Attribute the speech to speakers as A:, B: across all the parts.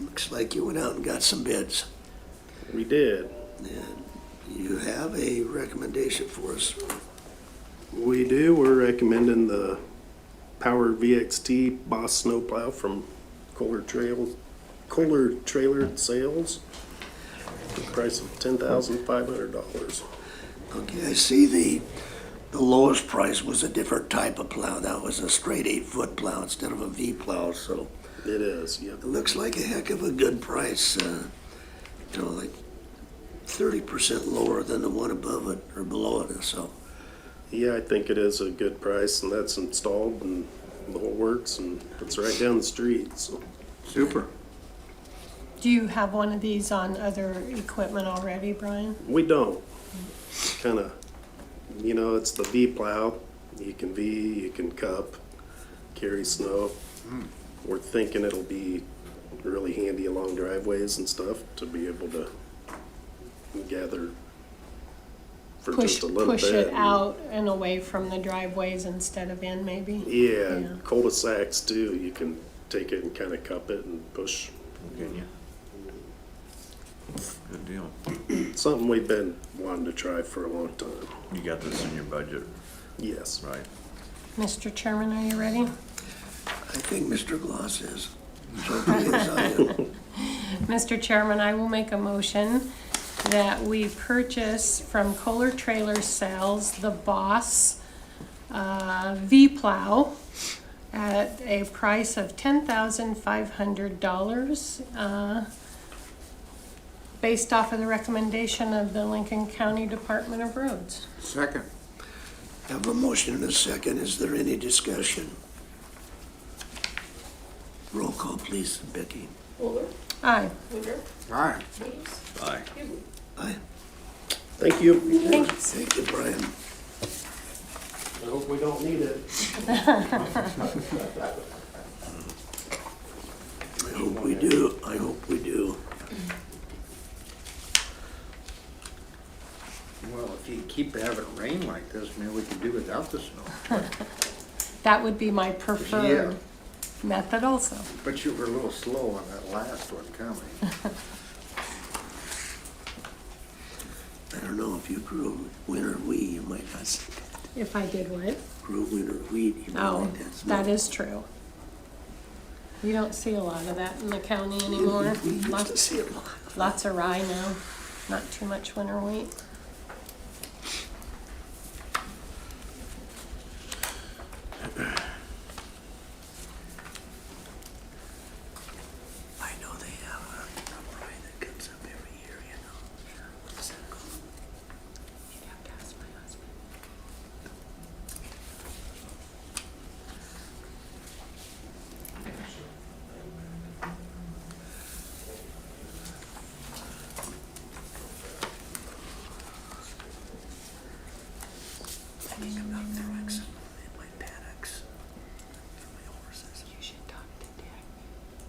A: Looks like you went out and got some bids.
B: We did.
A: And you have a recommendation for us.
B: We do. We're recommending the Power VXT Boss Snowplow from Kohler Trails, Kohler Trailer Sales. The price of ten thousand five hundred dollars.
A: Okay, I see the, the lowest price was a different type of plow. That was a straight eight-foot plow instead of a V plow, so
B: It is, yep.
A: it looks like a heck of a good price. uh, You know, like thirty percent lower than the one above it or below it, so.
B: Yeah, I think it is a good price and that's installed and the whole works and it's right down the street, so.
C: Super.
D: Do you have one of these on other equipment already, Brian?
B: We don't. Kind of, you know, it's the V plow. You can V, you can cup, carry snow. We're thinking it'll be really handy along driveways and stuff to be able to gather for
D: Push,
B: just a little
D: push
B: bit.
D: it out and away from the driveways instead of in, maybe?
B: Yeah,
D: Yeah.
B: and cul-de-sacs too. You can take it and kind of cup it and push.
C: Good deal.
B: Something we've been wanting to try for a long time.
C: You got this in your budget,
B: Yes.
C: right?
D: Mr. Chairman, are you ready?
A: I think Mr. Gloss is. So please, I am.
D: Mr. Chairman, I will make a motion that we purchase from Kohler Trailer Sales the Boss uh, V-Plow at a price of $10,500, uh, based off of the recommendation of the Lincoln County Department of Roads.
C: Second.
A: Have a motion and a second. Is there any discussion? Roll call, please, Becky.
E: Fuller,
D: Aye.
E: Woodruff,
C: Aye.
E: Williams,
C: Aye.
E: Hughley.
A: Aye.
B: Thank you.
D: Thanks.
A: Thank you, Brian.
B: I hope we don't need it.
A: I hope we do, I hope we do.
F: Well, if you keep having rain like this, maybe we could do without the snow.
D: That would be my
F: Yeah,
D: preferred method also.
F: but you were a little slow on that last one coming.
A: I don't know if you grew winter wheat, you might not, s-
D: If I did what?
A: grew winter wheat, you might
D: Oh,
A: like that smell.
D: that is true. You don't see a lot of that in the county anymore.
A: We used to
D: Lots,
A: see it a lot.
D: lots of rye now, not too much winter wheat.
A: I know they have a, a rye that comes up every year, you know. What's that called?
D: You'd have to ask my husband.
A: I think I'm not throwing some in my paddocks for my horses.
D: You should talk to Dick.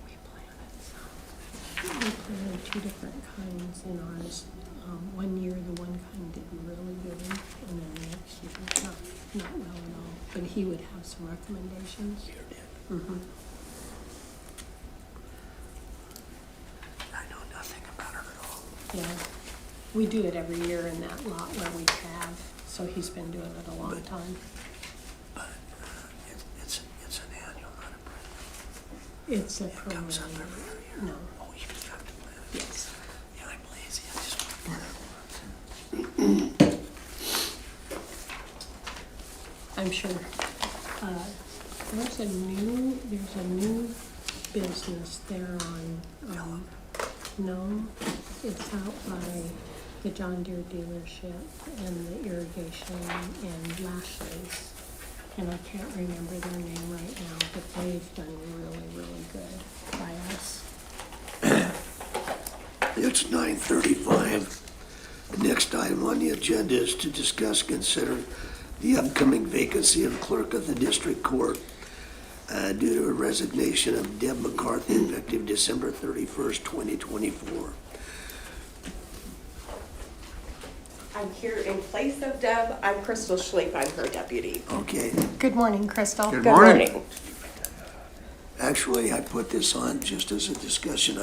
D: We planted some. We planted two different kinds in ours. Um, one year, the one kind did really good, and then the next year, not, not well at all. But he would have some recommendations.
A: Here, Dad,
D: Mhm.
A: I know nothing about her at all.
D: Yeah, we do it every year in that lot where we have, so he's been doing it a long time.
A: But uh, it, it's, it's an annual, not a perennial.
D: It's a
A: It comes up
D: perennial.
A: every year.
D: No,
A: Oh, you just have to plant it.
D: yes.
A: Yeah, I'm lazy. I just want to plant it.
D: I'm sure. Uh, There's a new, there's a new business there on, um, no, it's out by the John Deere dealership and the irrigation and Lashley's. And I can't remember their name right now, but they've done really, really good by us.
A: It's 9:35. The Next item on the agenda is to discuss, consider the upcoming vacancy of clerk of the district court uh, due to a resignation of Deb McCarthy effective December 31st, 2024.
E: I'm here in place of Deb. I'm Crystal Schleif. I'm her deputy.
A: Okay,
D: Good morning, Crystal.
C: Good morning.
A: actually, I put this on just as a discussion